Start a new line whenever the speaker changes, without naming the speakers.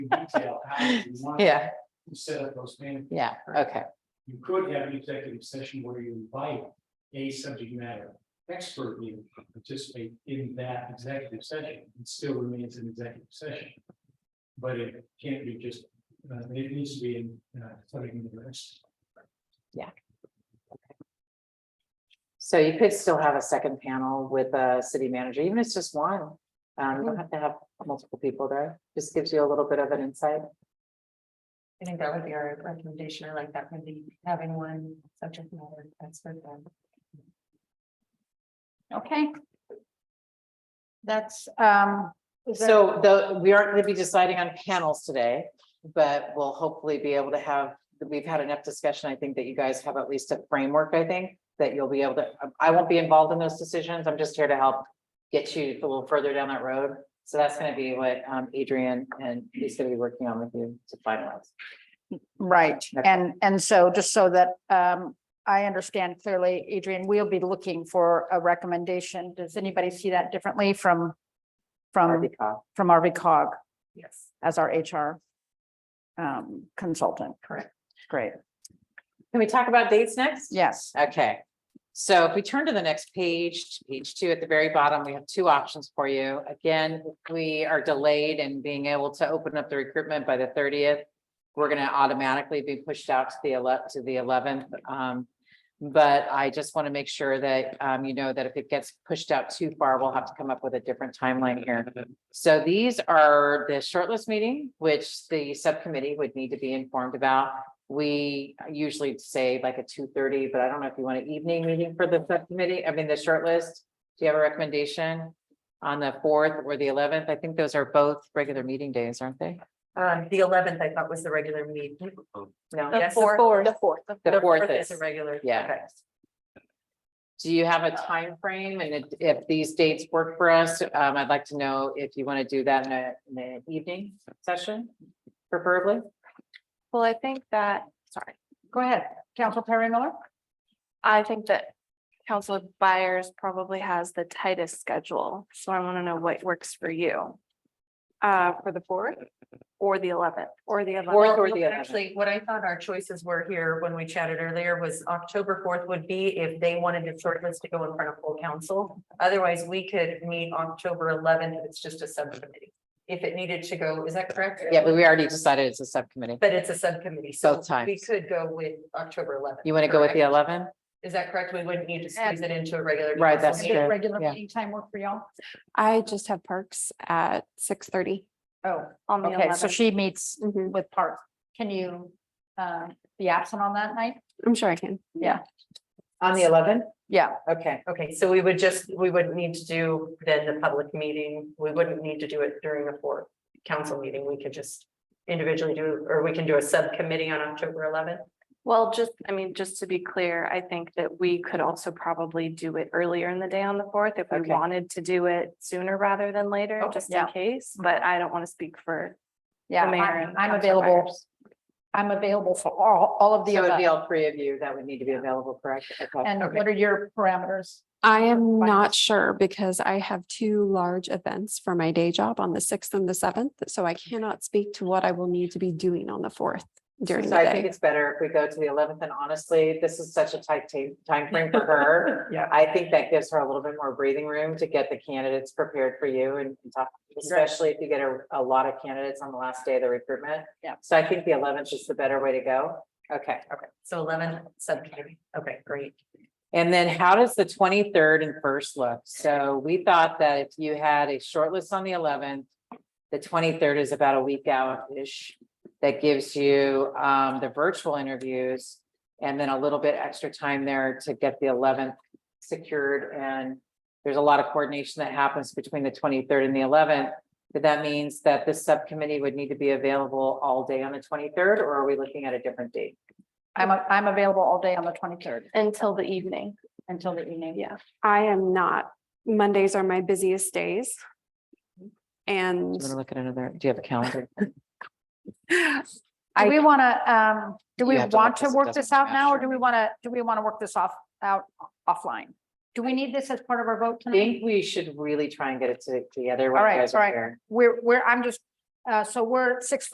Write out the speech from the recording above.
detail how you want
Yeah,
to set up those management
yeah, okay,
you could have an executive session where you invite a subject matter expert to participate in that executive session. It still remains an executive session. But it can't be just, uh, it needs to be in, uh, something in the rest.
so you could still have a second panel with a city manager, even if it's just one. Um, you don't have to have multiple people there, just gives you a little bit of an insight.
I think that would be our recommendation. I like that would be having one subject matter expert then.
Okay. That's, um. is there-
So the, we aren't gonna be deciding on panels today, but we'll hopefully be able to have, we've had enough discussion, I think that you guys have at least a framework, I think. That you'll be able to, um, I won't be involved in those decisions, I'm just here to help get you a little further down that road. So that's gonna be what um Adrian and he's gonna be working on with you to finalize.
Right,
Okay.
and, and so just so that um, I understand clearly, Adrian, we'll be looking for a recommendation. Does anybody see that differently from, from,
Arvika.
from RV cog
Yes.
as our HR um, consultant?
Correct.
Great,
Can we talk about dates next?
yes,
Okay, so if we turn to the next page, page two at the very bottom, we have two options for you. Again, if we are delayed in being able to open up the recruitment by the thirtieth. We're gonna ele- to the eleventh. um, But I just want to make sure that um, you know that if it gets pushed out too far, we'll have to come up with a different timeline here. So these are the shortlist meeting, which the subcommittee would need to be informed about. We usually say like a two thirty, but I don't know if you want an evening meeting for the subcommittee, I mean, the shortlist. Do you have a recommendation on the fourth or the eleventh? I think those are both regular meeting days, aren't they?
Um, the eleventh, I thought was the regular meeting.
No,
Yes,
fourth.
The fourth.
The fourth
is
is-
a regular.
yeah.
Okay.
Do you have a time frame? and if- if these dates work for us, um, I'd like to know if you want to do that in a, in an evening session, preferably?
Well, I think that, sorry,
go ahead, Council Perry Miller?
I think that Council Buyers probably has the tightest schedule, so I want to know what works for you. Uh, for the fourth or the eleventh or the
Fourth
eleventh.
or the eleventh?
Actually, what I thought our choices were here when we chatted earlier was October fourth would be if they wanted to shortlist to go in front of full council. Otherwise, we could meet October eleventh, it's just a subcommittee. If it needed to go, is that correct?
Yeah, but we already decided it's a subcommittee.
But it's a subcommittee, so
Both times.
we could go with October eleventh.
You want to go with the
correct?
eleven?
Is that correct? We wouldn't need to squeeze it into a regular.
Right,
council
that's
meeting?
true.
Regular
yeah.
meeting time work for y'all?
I just have parks at six thirty
Oh,
on the
okay, so
eleventh.
she meets
Mhm.
with Park. Can you uh, be absent on that night?
I'm sure I can.
On the eleven?
Yeah,
Okay,
Okay, so we would just, we wouldn't need to do then the public meeting. We wouldn't need to do it during a fourth council meeting. We could just individually do, or we can do a subcommittee on October eleventh.
Well, just, I mean, just to be clear, I think that we could also probably do it earlier in the day on the fourth if we
Okay.
wanted to do it sooner rather than later,
Okay.
just in
Yeah.
case, but I don't want to speak for.
yeah,
mayor
I'm
and
I'm
council
available.
members.
I'm available for all, all of the.
so it would
above.
be all three of you that would need to be available, correct? Okay.
And what are your parameters?
I am
Fine.
not sure because I have two large events for my day job on the sixth and the seventh, so I
Mm-hmm.
cannot speak to what I will need to be doing on the fourth during
So
the
I think
day.
it's better if we go to the eleventh, and honestly, this is such a tight time frame for her.
Yeah.
I think that gives her a little bit more breathing room to get the candidates prepared for you and and talk, especially if you get a, a lot of candidates on the last day of the recruitment.
Yeah.
So I think the eleventh is the better way to go. Okay,
Okay, so eleven subcommittee. Okay, great.
and then how does the twenty-third and first look? So we thought that if you had a shortlist on the eleventh, the twenty-third is about a week out-ish. That gives you um the virtual interviews and then a little bit extra time there to get the eleventh secured and there's a lot of coordination that happens between the twenty-third and the eleventh. But that means that the subcommittee would need to be available all day on the twenty-third, or are we looking at a different date?
I'm, a- I'm available all day on the twenty-third
Until the evening.
until the evening.
Yeah.
I am not, Mondays are my busiest days.
Mm-hmm.
And
I'm gonna look at another, do you have a calendar?
Do
I-
we want to, um, do we
You have to let
want to
this- it
work this
doesn't
out now, or
matter.
do we want to, do we want to work this off, out offline? Do we need this as part of our vote
I
tonight?
think we should really try and get it to- together. when
All
you
right,
guys are
all right.
here.
We're, we're, I'm just, uh, so we're at six